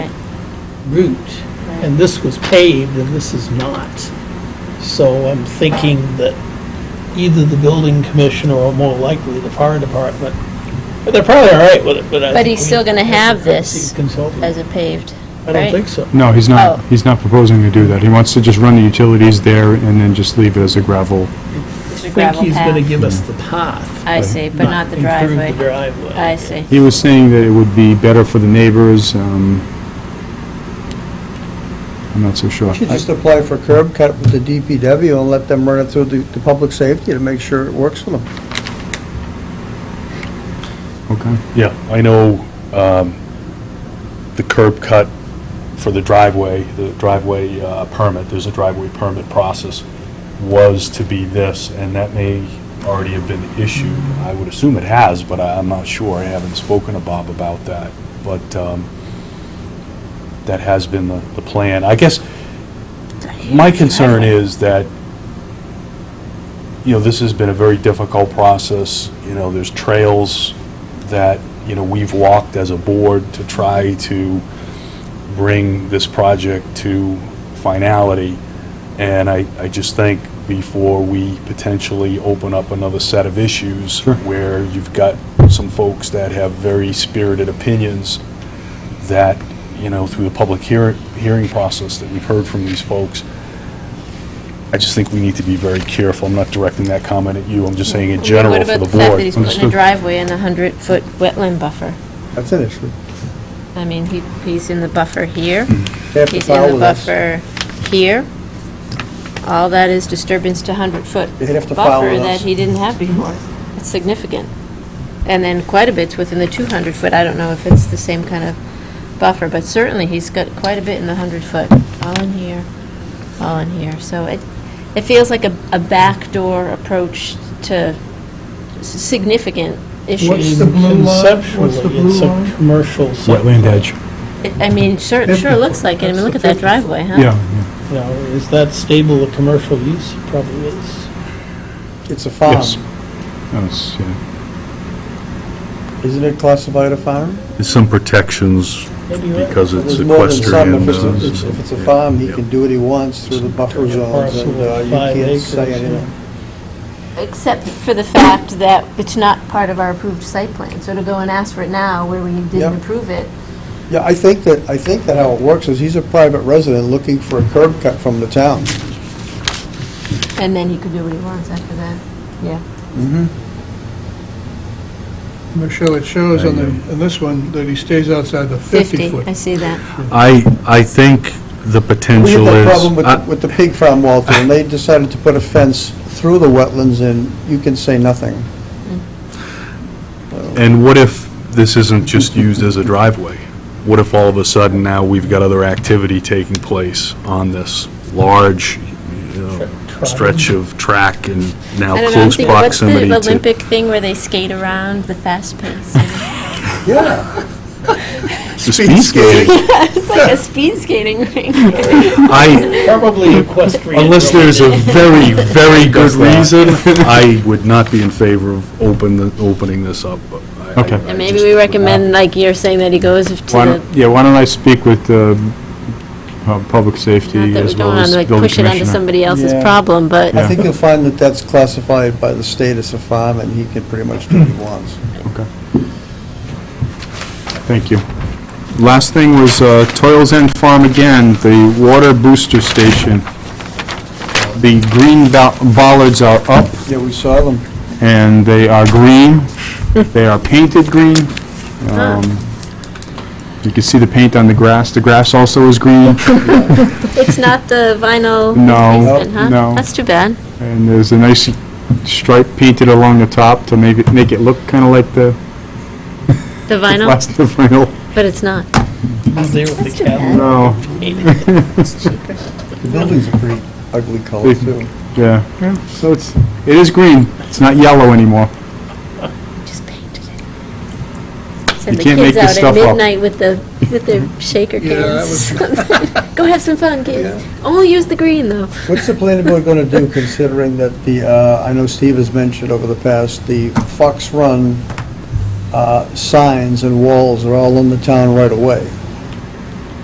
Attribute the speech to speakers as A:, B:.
A: route, and this was paved and this is not. So I'm thinking that either the building commissioner or more likely the fire department, but they're probably all right with it, but I
B: But
A: think
B: he's
A: we-
B: still gonna
A: I think
B: have
A: we need
B: this
A: to consult with-
B: as a paved,
A: I don't think
B: right?
A: so.
C: No, he's
B: Oh.
C: not, he's not proposing to do that. He wants to just run the utilities there and then just leave it as a gravel.
B: It's a
A: I think
B: gravel
A: he's gonna
B: path.
A: give us the path.
B: I see, but not the driveway.
A: Improve the driveway.
B: I see.
C: He was saying that it would be better for the neighbors, um, I'm not so sure.
D: You should just apply for curb cut with the DPW and let them run it through the, the public safety to make sure it works for them.
C: Okay.
E: Yeah, I know um, the curb cut for the driveway, the driveway uh, permit, there's a driveway permit process, was to be this, and that may already have been issued. I would assume it has, but I- I'm not sure. I haven't spoken to Bob about that. But um, that has been the the plan. I guess my concern is that, you know, this has been a very difficult process. You know, there's trails that, you know, we've walked as a board to try to bring this project to finality. And I, I just think before we potentially open up another set of issues
C: Sure.
E: where you've got some folks that have very spirited opinions that, you know, through the public hear- hearing process that we've heard from these folks, I just think we need to be very careful. I'm not directing that comment at you, I'm just saying in general for the board.
B: What about the fact that he's putting a
C: Understood.
B: driveway in a hundred-foot wetland buffer?
D: That's an issue.
B: I mean, he, he's in the buffer here,
E: Mm-hmm.
D: They have to
B: he's
D: file
B: in the
D: with us.
B: buffer here. All that is disturbance to hundred-foot
D: They'd have to file
B: buffer
D: with
B: that
D: us.
B: he didn't have before. It's significant. And then quite a bit's within the two hundred-foot, I don't know if it's the same kind of buffer, but certainly he's got quite a bit in the hundred-foot, all in here, all in here. So it, it feels like a, a backdoor approach to s- significant issues.
A: In-
F: blue line?
A: conceptually,
F: What's the blue
A: it's a
F: line?
A: Commercial.
C: Wetland
A: subdivision.
C: edge.
B: It- I mean, sure, sure looks like it. I mean, look at that driveway, huh?
C: Yeah, yeah.
A: Now, is that stable to commercial use? It Probably is.
D: It's a farm.
C: Yes. That's, yeah.
D: Isn't it classified a farm?
E: There's some protections
A: Maybe you're right.
E: because it's
D: There's more than some.
E: equestrian.
D: If it's,
E: uh,
D: a- it's- if it's a farm, he can do what he wants through the buffer zones and uh, you
A: Five
D: can't
A: acres.
D: say anything.
B: Except for the fact that it's not part of our approved site plan. So to go and ask for it now where we
D: Yep.
B: didn't approve it.
D: Yeah, I think that, I think that how it works is he's a private resident looking for a curb cut from the town.
B: And then he could do what he wants after that. Yeah.
F: Michelle, it shows on the, on this one that he stays outside the 50 foot.
B: I see that.
E: I, I think the
D: We had
E: potential
D: that
E: is. uh,
D: problem with, the-
E: I-
D: with the pig farm, Walter, and they decided to put a fence through the wetlands and you can say nothing.
E: And what if this isn't just used as a driveway? What if all of a sudden now we've got other activity taking place on this large, you know,
A: Track.
E: stretch of track and now
B: I don't know, I'm
E: close
B: thinking, what's the
E: proximity to.
B: Olympic thing where they skate around the fast pace?
D: Yeah.
E: to Speed skating.
B: It's like a speed skating ring.
E: I,
A: Probably equestrian.
E: unless
A: related.
E: there's a very, very good reason, I would not be in favor of open, the- opening this up. but I- I-
C: Okay.
E: I
B: And maybe
E: just-
B: we recommend, like you're saying, that he goes to
C: Why don't,
B: the,
C: yeah, why don't I speak with, uh, uh, public safety
B: not that we
C: as
B: don't
C: well
B: want
C: as
B: to like
C: building commissioner?
B: push it onto somebody else's
D: Yeah.
B: problem, but.
D: I think you'll find that that's classified by the state as a farm, and he can pretty much do what he wants.
C: Okay. Thank you. Last thing was uh, Toils End Farm again, the water booster station. The green bol- bollards are up,
D: Yeah, we saw them.
C: and they are green. They are painted green. Um, You can see the paint on the grass. The grass also is green,
B: It's not the vinyl
C: No,
B: replacement, huh?
C: no.
B: That's too bad.
C: and there's a nice stripe painted along the top to make it, make it look kind of like the
B: The
C: the
B: vinyl,
C: plastic vinyl.
B: but it's not.
A: He's there with
B: That's
A: the
B: too
A: cattle.
B: bad.
C: No,
D: The building's a pretty ugly color, too.
C: yeah. Yeah, So it's, it is green. It's not yellow anymore.
B: Just painted it. Send
C: You
B: the
C: can't make
B: kids out at
C: this stuff up.
B: midnight with the, with their shaker
F: Yeah, that
B: cans. Go have some fun, kids. Only use the green, though.
D: What's the planning board going to do, considering that the, uh, I know Steve has mentioned over the past, the Fox Run uh, signs and walls are all in the town right away?